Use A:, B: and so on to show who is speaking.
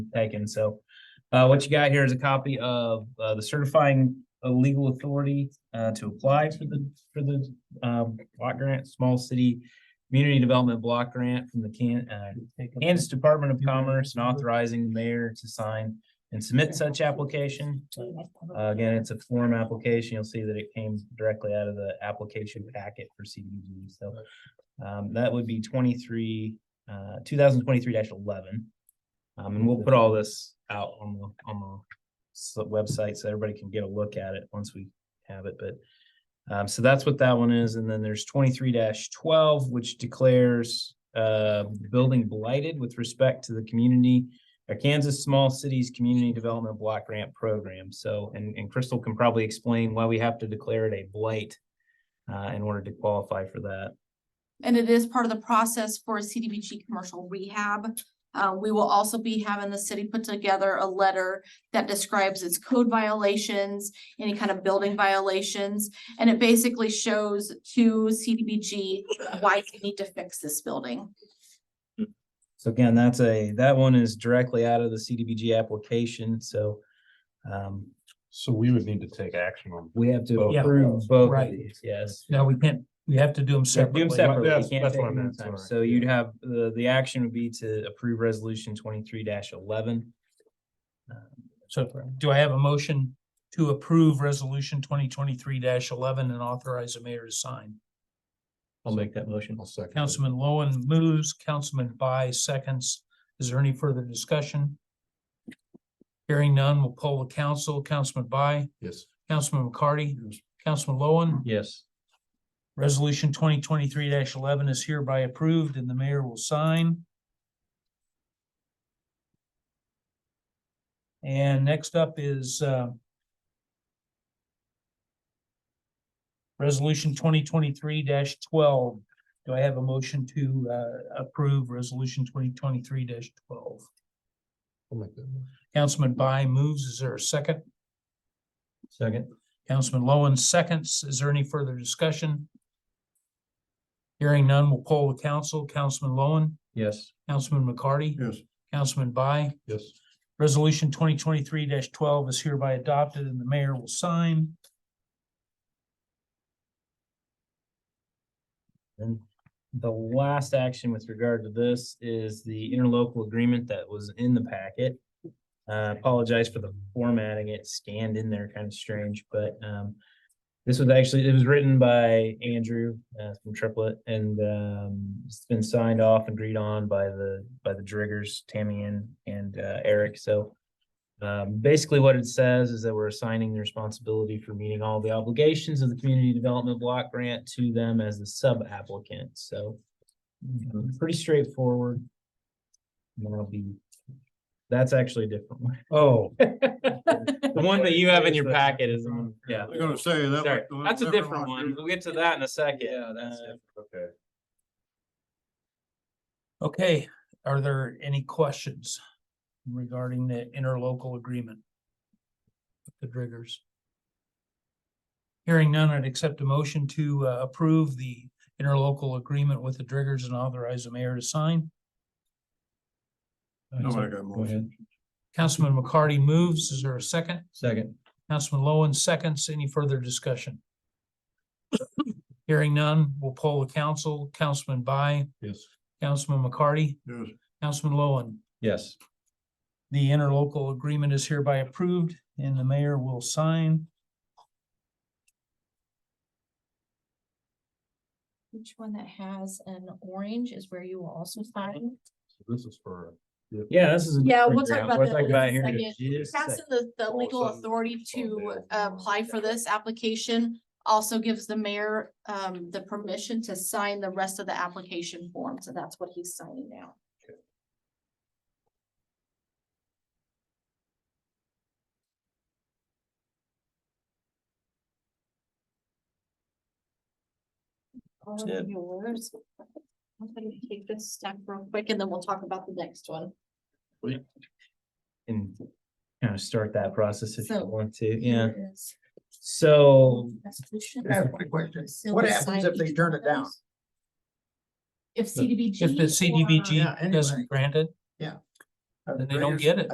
A: taken, so. Uh, what you got here is a copy of, uh, the certifying uh, legal authority, uh, to apply for the, for the, um, block grant, small city. Community Development Block Grant from the Can, uh, Kansas Department of Commerce and authorizing the mayor to sign and submit such application. Uh, Again, it's a form application. You'll see that it came directly out of the application packet for CDBG, so. Um, that would be twenty-three, uh, two thousand twenty-three eleven. Um, and we'll put all this out on the, on the s- website so everybody can get a look at it once we have it, but. Um, so that's what that one is. And then there's twenty-three twelve, which declares, uh, building blighted with respect to the community a Kansas Small Cities Community Development Block Grant Program. So, and, and Crystal can probably explain why we have to declare it a blight uh, in order to qualify for that.
B: And it is part of the process for CDBG commercial rehab. Uh, we will also be having the city put together a letter that describes its code violations, any kind of building violations. And it basically shows to CDBG why we need to fix this building.
A: So again, that's a, that one is directly out of the CDBG application, so um,
C: So we would need to take action on.
A: we have to
C: Both.
A: approve both of
D: Right.
A: these, yes.
D: No, we can't, we have to do
A: Do
D: them
A: them
D: separately.
A: separately. You
C: That's-
A: can't
C: that's
A: take
C: what I
A: them at
C: meant,
A: a time.
C: sorry.
A: So you'd have, the, the action would be to approve resolution twenty-three eleven.
D: So do I have a motion to approve resolution twenty twenty-three eleven and authorize the mayor to sign?
C: I'll make that motion. I'll second. it.
D: Councilman Lowen moves, Councilman By seconds. Is there any further discussion? Hearing none, we'll poll the council. Councilman By,
C: Yes.
D: Councilman McCarty, Councilman Lowen.
C: Yes.
D: Resolution twenty twenty-three eleven is hereby approved and the mayor will sign. And next up is, uh, resolution twenty twenty-three twelve. Do I have a motion to, uh, approve resolution twenty twenty-three twelve?
C: I'll make that.
D: Councilman By moves. Is there a second?
C: Second.
D: Councilman Lowen seconds. Is there any further discussion? Hearing none, we'll poll the council. Councilman Lowen,
C: Yes.
D: Councilman McCarty,
C: Yes.
D: Councilman By.
C: Yes.
D: Resolution twenty twenty-three twelve is hereby adopted and the mayor will sign.
A: And the last action with regard to this is the interlocal agreement that was in the packet. Uh, apologize for the formatting, it scanned in there kind of strange, but, um, this was actually, it was written by Andrew, uh, from Triplet and, um, it's been signed off, agreed on by the, by the Driggers, Tammy and, and, uh, Eric, so. Um, basically what it says is that we're assigning the responsibility for meeting all the obligations of the community development block grant to them as the sub applicant, so. um, Pretty straightforward. And that'll be, that's actually a different one.
C: Oh.
A: The one that you have in your packet is, the one- yeah.
E: I'm gonna say that.
A: Sorry,
E: was-
A: that's a different one. We'll get to that in a second. Uh, Yeah,
C: Okay.
D: Okay, are there any questions regarding the interlocal agreement? with The Driggers. Hearing none, I'd accept a motion to uh, approve the interlocal agreement with the Driggers and authorize the mayor to sign.
E: Nobody got a motion.
D: Councilman McCarty moves. Is there a second?
C: Second.
D: Councilman Lowen seconds. Any further discussion? Hearing none, we'll poll the council. Councilman By,
C: Yes.
D: Councilman McCarty,
E: Yes.
D: Councilman Lowen.
C: Yes.
D: The interlocal agreement is hereby approved and the mayor will sign.
F: Each one that has an orange is where you will also sign.
C: This is for.
A: Yeah, this is. a
B: Yeah, we'll
A: different
B: talk
A: grant.
B: about
A: We're
B: that
A: talking
B: in a
A: about here in
B: second.
A: just a second.
B: Passing the, the legal
C: Also,
B: authority to
C: someday I'll-
B: apply for this application also gives the mayor, um, the permission to sign the rest of the application form. So that's what he's signing now.
F: All
D: That's
F: of
D: it.
F: yours.
B: I'm gonna take this step real quick and then we'll talk about the next one.
A: And kind of start that process if you
B: So-
A: want to, yeah.
B: Here it is.
A: So
B: Resolution.
D: I have a
F: quick question.
B: So
F: What
B: we
F: happens
B: sign
F: if they
B: each
F: turn
B: of
F: it down?
B: those? If CDBG.
D: If the
B: or-
F: Yeah,
D: CDBG
F: anyway.
D: doesn't grant it,
F: Yeah.
D: then they don't get it.